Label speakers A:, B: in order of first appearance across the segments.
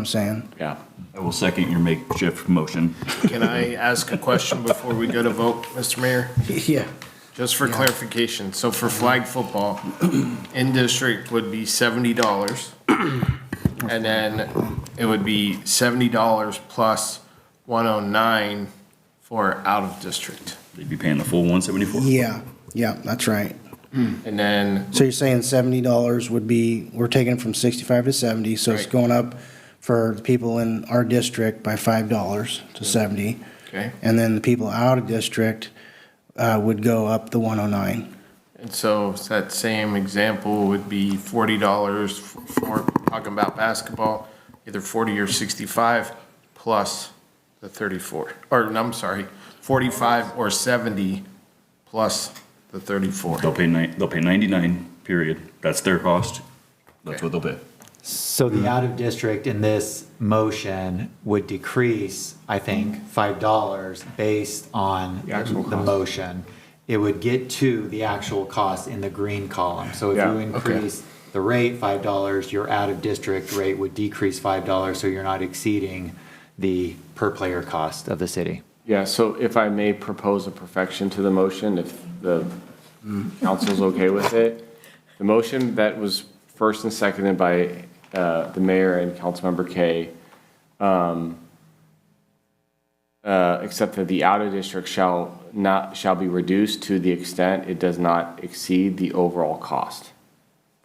A: I'm saying?
B: Yeah.
C: I will second your makeshift motion.
D: Can I ask a question before we go to vote, Mr. Mayor?
A: Yeah.
D: Just for clarification, so for flag football, in-district would be seventy dollars. And then it would be seventy dollars plus one oh nine for out-of-district.
C: They'd be paying the full 174?
A: Yeah, yeah, that's right.
D: And then,
A: So you're saying seventy dollars would be, we're taking it from sixty-five to seventy, so it's
D: Right.
A: going up for the people in our district by five dollars to seventy.
D: okay,
A: And then the people out of district, uh, would go up the one oh nine.
D: and so that same example would be forty dollars for, talking about basketball, either forty or sixty-five plus the thirty-four, or, no, I'm sorry, forty-five or seventy plus the thirty-four.
C: They'll pay nine, they'll pay 99, period. That's their cost. That's what they'll pay.
E: So the out of district in this motion would decrease, I think, five dollars based on the motion. It would get to the actual cost in the green column. So if you increase the rate five dollars, your out of district rate would decrease five dollars, so you're not exceeding the per player cost of the city.
B: Yeah, so if I may propose a perfection to the motion, if the council's okay with it. The motion that was first and seconded by uh, the mayor and Councilmember Kay, um, uh, except that the outer district shall not, shall be reduced to the extent it does not exceed the overall cost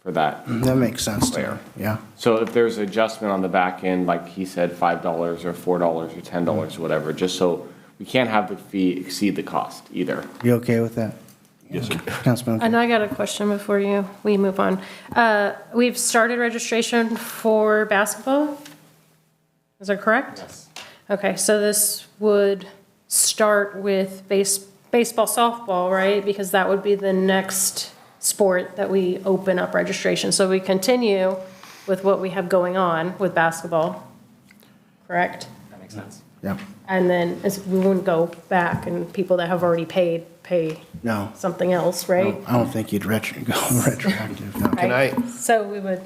B: for that
A: That makes sense to me,
B: Fair.
A: yeah.
B: So if there's adjustment on the back end, like he said, five dollars or four dollars or ten dollars, whatever, just so we can't have the fee exceed the cost either.
A: You okay with that?
C: Yes, sir.
A: Councilman,
F: And I got a question before you, we move on. Uh, We've started registration for basketball? Is that correct? Yes. Okay, so this would start with base, baseball, softball, right? Because that would be the next sport that we open up registration. So we continue with what we have going on with basketball, correct?
E: That makes sense.
A: yeah,
F: And then it's- we wouldn't go back and people that have already paid, pay
A: no.
F: something else, right?
A: I don't think you'd retro, go retroactive, no.
D: Can I- um,
F: So we would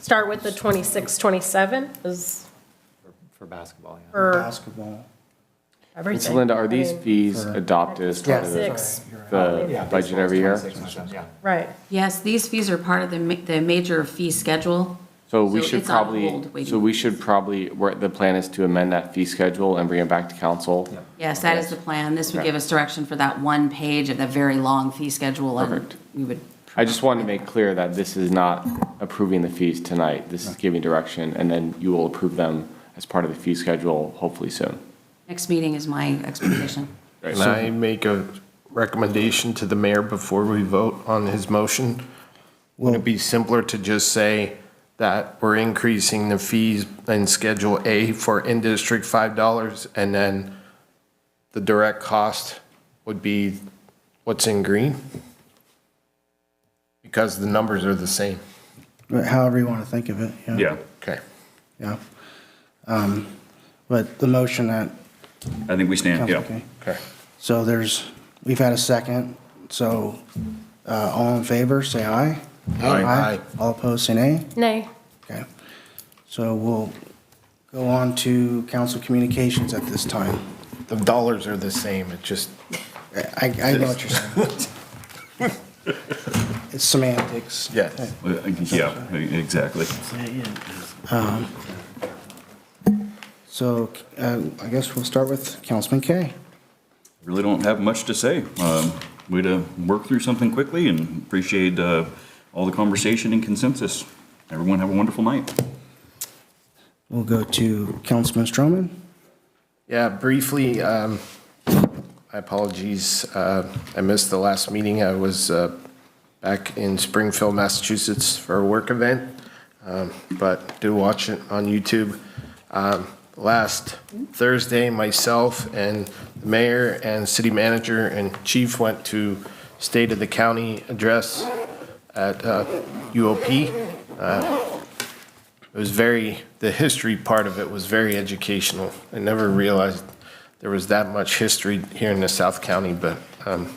F: start with the 26, 27 is
E: For basketball, yeah.
F: for
A: Basketball.
B: And
F: everything.
B: so Linda, are
F: I
B: these
F: mean,
B: fees adopted as part of the-
F: Six,
B: the budget every year?
F: right.
G: Yes, these fees are part of the, ma- the major fee schedule.
B: So we
G: So
B: should
G: it's on hold,
B: probably,
G: waiting.
B: so we should probably, where the plan is to amend that fee schedule and bring it back to council.
G: Yes, that is the plan. This would give us direction for that one page of the very long fee schedule. and
B: Perfect.
G: We would,
B: I just wanted to make clear that this is not approving the fees tonight. This is giving direction, and then you will approve them as part of the fee schedule hopefully soon.
G: next meeting is my expectation.
D: Can I make a recommendation to the mayor before we vote on his motion? Wouldn't it be simpler to just say that we're increasing the fees in Schedule A for in-district $5, and then the direct cost would be what's in green? Because the numbers are the same.
A: But however you want to think of it, yeah.
C: Yeah,
D: Okay.
A: Yeah. Um, But the motion that,
C: I think we stand,
A: sounds
C: yeah.
A: okay.
D: Okay.
A: So there's, we've had a second, so uh, all in favor, say aye.
D: Aye. Aye.
A: All opposed, say nay.
F: Nay.
A: Okay. So we'll go on to council communications at this time.
D: The dollars are the same, it just,
A: I, I know what you're saying. It's semantics.
D: yes.
C: Uh, Yeah, exactly.
A: So uh, I guess we'll start with Councilman Kay.
C: really don't have much to say. Um, Way to work through something quickly and appreciate uh, all the conversation and consensus. Everyone have a wonderful night.
A: We'll go to Councilman Stroman.
D: Yeah, briefly, um, I apologies, uh, I missed the last meeting. I was, uh, back in Springfield, Massachusetts for a work event. Um, but do watch it on YouTube. Um, last Thursday, myself and the mayor and city manager and chief went to State of the County address at, uh, UOP. It was very, the history part of it was very educational. I never realized there was that much history here in the South County, but um,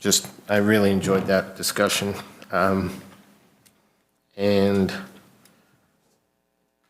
D: just, I really enjoyed that discussion. Um, And